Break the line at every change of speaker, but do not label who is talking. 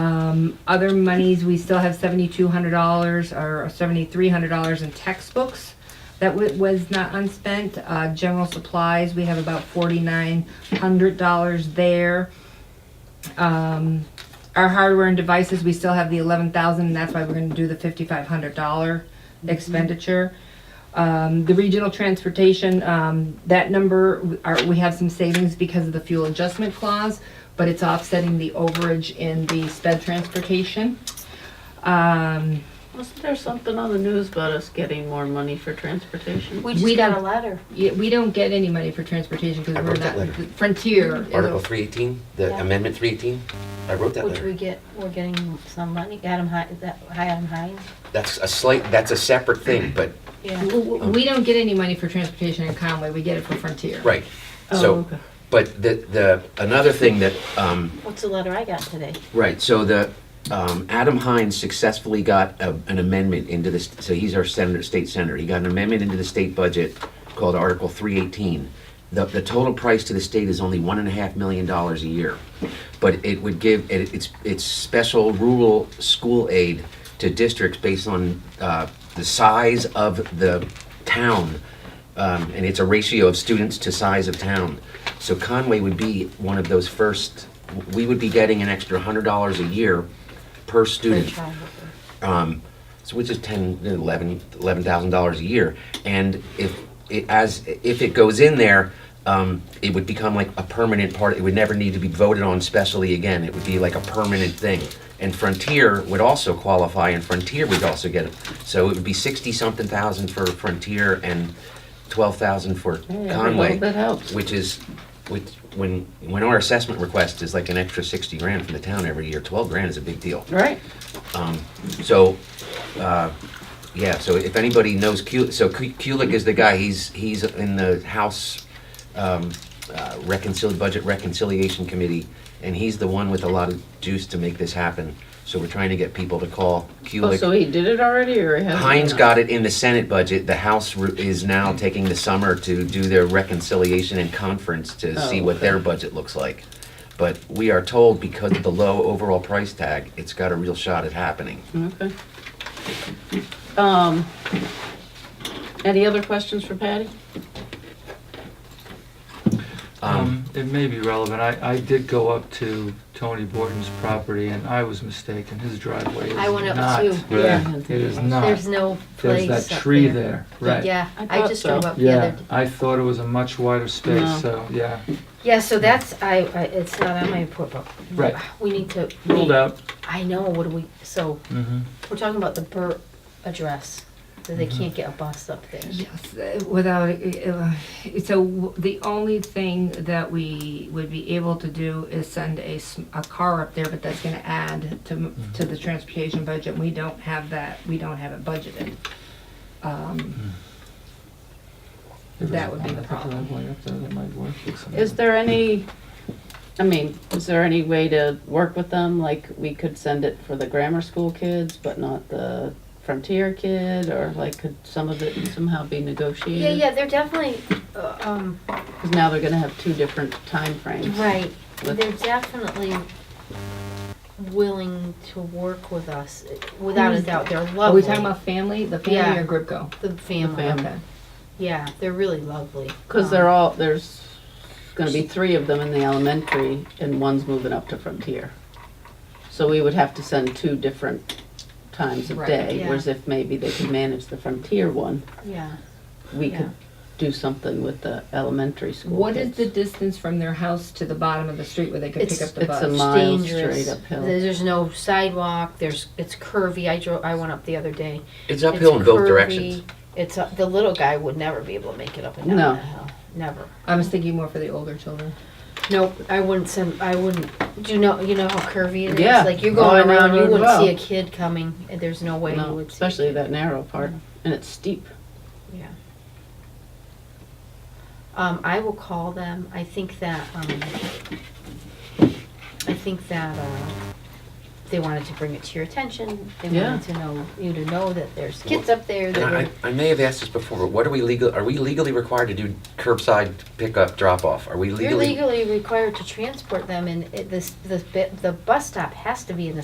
Um, other monies, we still have seventy-two hundred dollars or seventy-three hundred dollars in textbooks that wa- was not unspent. Uh, general supplies, we have about forty-nine hundred dollars there. Um, our hardware and devices, we still have the eleven thousand, and that's why we're gonna do the fifty-five hundred dollar expenditure. Um, the regional transportation, um, that number, w- are, we have some savings because of the fuel adjustment clause, but it's offsetting the overage in the sped transportation. Um,
Wasn't there something on the news about us getting more money for transportation?
We
just
just
We got
got
don't-
a letter.
yeah, we don't get any money for transportation because
I
we're
wrote that
not,
letter.
Frontier. is a-
Article three eighteen, the
Yeah.
amendment three eighteen, I wrote that
Which we
letter.
get, we're getting some money, Adam Hi, is that Adam Hines?
That's a slight, that's a separate thing, but,
Yeah.
w- w- We don't get any money for transportation in Conway, we get it from Frontier.
right.
Oh,
So, but the, the, another thing that, um,
What's the letter I got today?
Right, so the, um, Adam Hines successfully got a, an amendment into this, so he's our senator, state senator. He got an amendment into the state budget called Article three eighteen. The, the total price to the state is only one and a half million dollars a year. But it would give, it, it's, it's special rural school aid to districts based on, uh, the size of the town. Um, and it's a ratio of students to size of town. So Conway would be one of those first, we would be getting an extra hundred dollars a year per student,
Child.
so which is ten, eleven, eleven thousand dollars a year. And if, it as, if it goes in there, um, it would become like a permanent part, it would never need to be voted on specially again, it would be like a permanent thing. And Frontier would also qualify, and Frontier would also get it, so it would be sixty-something thousand for Frontier and twelve thousand for Conway
That helps.
which is, which, when, when our assessment request is like an extra sixty grand from the town every year, twelve grand is a big deal.
Right.
So, uh, yeah, so if anybody knows Kulik, so Ku- Kulik is the guy, he's, he's in the House, um, uh, reconcil, Budget Reconciliation Committee, and he's the one with a lot of juice to make this happen. So we're trying to get people to call
Oh, so
Kulik.
he did it already, or he hasn't?
Heinz got it in the Senate budget, the House ru- is now taking the summer to do their reconciliation and conference to see
Oh,
what their
okay.
budget looks like. But we are told because of the low overall price tag, it's got a real shot at happening.
Okay. Um, any other questions for Patty?
Um, it may be relevant. I, I did go up to Tony Borton's property and I was mistaken. His driveway is not.
I went up too. Yeah.
It is
There's
not.
no
There's
place
that
up
tree there, right.
Yeah,
I
I
thought
just drove
so.
up the other.
Yeah,
d-
I thought it was a much wider
No.
space, so, yeah,
Yeah, so that's, I, I- it's not on my report, but
right.
we need to.
Ruled out.
I know, what do we, so,
Mhm.
we're talking about the Burt address, that they
Mm-hmm.
can't get a bus up there.
Yes, uh, without, uh, so w- the only thing that we would be able to do is send a, s- a car up there, but that's gonna add to, m- to the transportation budget. We don't have that, we don't have it budgeted. Um,
There was
That would be
one
the
other
problem.
driveway up there that might work for somebody.
Is there any, I mean, is there any way to work with them? Like, we could send it for the grammar school kids, but not the Frontier kid, or like, could some of it somehow be negotiated?
Yeah, yeah, they're definitely, uh, um,
Because now they're gonna have two different timeframes.
Right,
with-
they're definitely willing to work with us, without a
Who's-
doubt, they're lovely.
Are we talking about family, the family
Yeah.
or group go?
The
The
family,
fam-
Okay.
yeah, they're really lovely.
Because they're all, there's gonna be three of them in the elementary, and one's moving up to Frontier. So we would have to send two different times of
Right,
day,
yeah.
whereas if maybe they could manage the Frontier one,
Yeah,
we
Yeah.
could do something with the elementary school
What is
kids.
the distance from their house to the bottom of the street where they could pick
It's-
up the
it's a
bus?
mi-
it's
Miles
dangerous,
straight uphill.
There- there's no sidewalk, there's, it's curvy, I drove, I went up the other day.
It's
It's
uphill in both
curvy.
directions.
It's, up- the little guy would never be able to make it up and down
No.
that hill, never.
I was thinking more for the older children.
Nope, I wouldn't send. I wouldn't. Do you know? You know how curvy it is.
Yeah.
Like you're
Oh, I
going
know
around,
the
you
road
wouldn't
well.
see a kid coming. and There's no way you
No,
would.
especially
see a
that narrow part, and it's steep.
kid. Yeah. Um, I will call them. I think that. Um, I think that uh, they wanted to bring it to your attention. They
Yeah.
wanted to know, you to know that there's kids up there
And
that
I,
were,
I may have asked this before, but what are we legal, are we legally required to do curbside pickup, drop off? Are we
you're
legally?
legally required to transport them and it, this, the, the bus stop has to be in the